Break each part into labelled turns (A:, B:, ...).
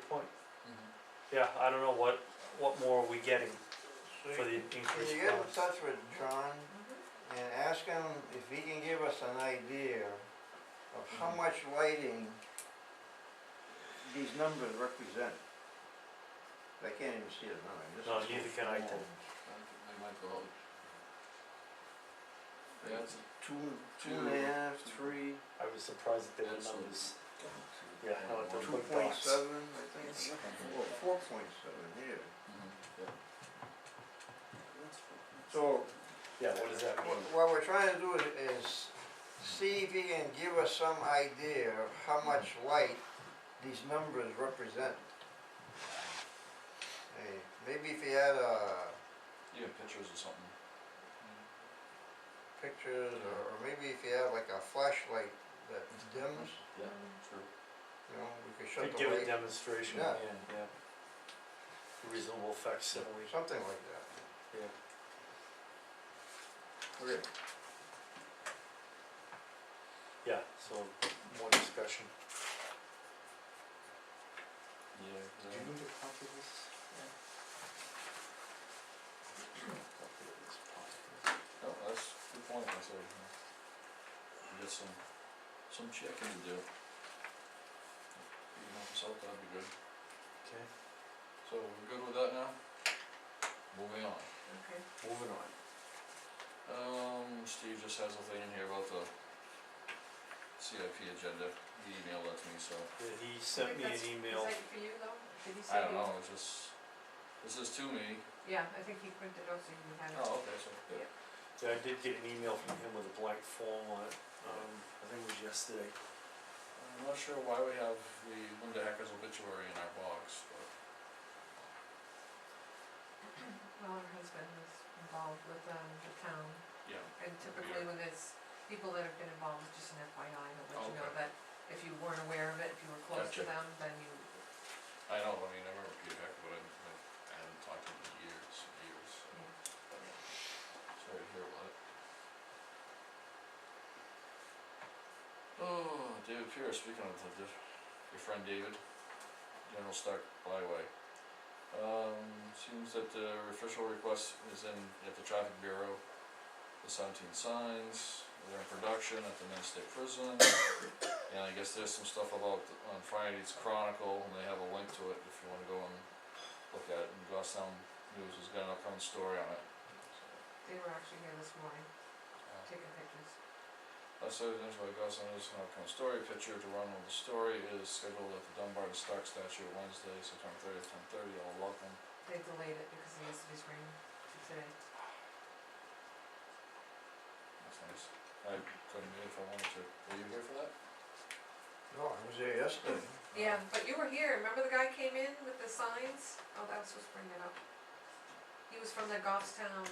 A: Mm-hmm.
B: yeah, I don't know what, what more are we getting
C: So
B: for the
C: you- Can
B: increased
C: you get in
B: cost?
C: touch with John and ask him if he can give us an idea of how much lighting these numbers represent? I can't even see the number, this is.
B: No, neither can I tell.
A: They might go out. Yeah, it's a
C: Two, two and a half, three,
B: I was surprised that there were
A: Absolutely.
B: numbers. Yeah, I know, it
C: two
B: doesn't-
C: point
B: Box.
C: seven, I think, or four point seven here.
A: Mhm, yeah.
C: So,
B: Yeah, what does that mean?
C: Wh- What we're trying to do is, is see if he can give us some idea of how much light these numbers represent. Hey, maybe if he had, uh,
A: You have pictures or something.
C: pictures, or, or maybe if he had like a flashlight that dims,
A: Yeah, true.
C: you know, we could shut
B: Could
C: the
B: give a
C: light,
B: demonstration, yeah,
A: Uh,
C: Yeah.
B: yeah. Reasonable facsimile,
C: something like that.
B: yeah.
C: Okay.
B: Yeah, so more discussion.
A: Yeah, yeah.
B: need a copy of this?
A: No, Oh, that's a good point, that's everything. We got some, some checking to do. You can help us out, that'd be good.
B: Okay,
A: So we're good with that now? Moving on.
D: Okay.
B: moving on.
A: Um, Steve just has a thing in here about the CIP agenda, he emailed that to me, so.
B: Yeah, he sent me an email,
D: Is that for you though? Did he
A: I
D: send
A: don't
D: you?
A: know, it's just, this is to me.
D: Yeah, I think he printed out so you can have it.
A: Oh, okay, so, yeah.
B: yeah, I did get an email from him with a blank form on it, um, I think it was yesterday.
A: I'm not sure why we have the Linda Hacker's obituary in our box, but.
D: Well, her husband was involved with, um, the town,
A: Yeah.
D: and typically when there's people that have been involved, it's just an FYI, I'll let you know
A: Okay.
D: that if you weren't aware of it, if you were close to
A: Gotcha.
D: them, then you,
A: I know, I mean, I remember Peter Hecker, but I, I- I haven't talked to him in years, years, so. Sorry to hear about it. Oh, David Pierce, speaking of the, diff- your friend David, General Stark Byway. Um, seems that the official request is in, at the traffic bureau, the seventeen signs, they're in production at the Men's State Prison. And I guess there's some stuff about, the- on Friday's Chronicle, and they have a link to it if you wanna go and look at it, and Gosstown News has got an upcoming story on it. So,
D: they were actually here this morning,
A: uh,
D: taking pictures.
A: Last Saturday, Angelo Gosselin is an upcoming story, picture to run with the story is scheduled at the Dunbar and Stark statue Wednesday, September thirtieth, ten thirty, all welcome.
D: They delayed it because of yesterday's rain today.
A: That's nice. I couldn't be if I wanted to. Were you here for that?
C: No, I was there yesterday.
D: Yeah, but you were here, remember the guy came in with the signs? Oh, that was supposed to bring it up. He was from the Goffstown,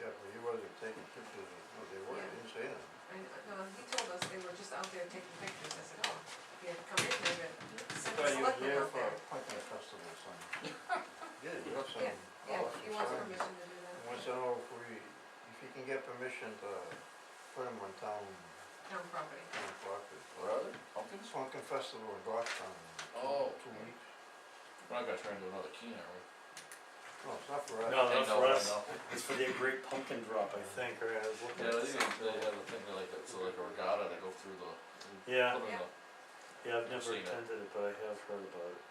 C: Yeah, but he wasn't taking pictures, of- no, they were,
D: Yeah.
C: I didn't say that.
D: I, no, he told us they were just out there taking pictures, I said, oh, if you had come in, they would send
B: Thought
D: a
B: you were
D: selectman
C: Yeah,
D: out
C: for a
D: there.
C: punting festival, son. Yeah, you have some.
D: Yeah, Yeah,
C: awesome
D: he wants
C: signs.
D: permission to
C: I
D: do that,
C: want to know if we, if you can get permission to put them on town,
D: town property.
C: town property.
A: What are they? Pumpkins?
C: Swankin Festival in Goffstown. in
A: Oh.
C: Two weeks.
A: We're not gonna turn into another Keener, are we?
C: No, it's not for us.
B: No,
A: Hey,
B: not for
A: I
B: us.
A: know.
B: It's for their great pumpkin drop, I think, or I was looking
A: Yeah,
B: at this.
A: they even, they have a thing, they like, it's like a regatta, they go through the. they
B: Yeah.
A: put 'em in the-
B: Yeah, I've
A: I've
B: never
A: seen it.
B: attended it, but I have heard about it.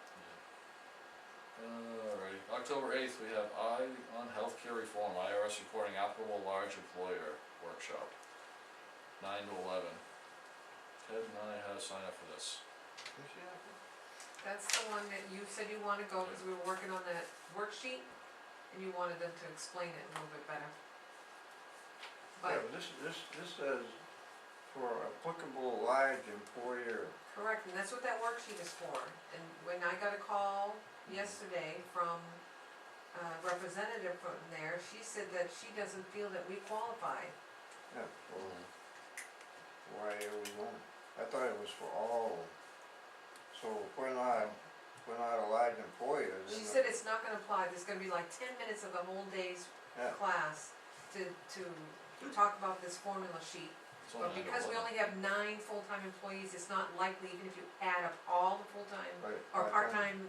A: Alrighty, October eighth, we have I on healthcare reform, IRS reporting applicable large employer workshop, nine to eleven. Ted and I had to sign up for this.
C: Can you see that?
D: That's the one that you said you wanna go, cause we were working on that worksheet, and you wanted them to explain it a little bit better.
C: Yeah,
D: But,
C: but this, this, this says for applicable large employer,
D: correct, and that's what that worksheet is for, and when I got a call yesterday from a representative from there, she said that she doesn't feel that we qualify.
C: yeah, for, why are we going? I thought it was for all. So if we're not, if we're not a large employer, then.
D: She said it's not gonna apply, there's gonna be like ten minutes of the whole day's
C: Yeah,
D: class to, to talk about this formula sheet.
A: It's
D: But
A: only nine to
D: because we
A: 11.
D: only have nine full-time employees, it's not likely, even if you add up all the full-time
C: right. part-time.
D: or part-time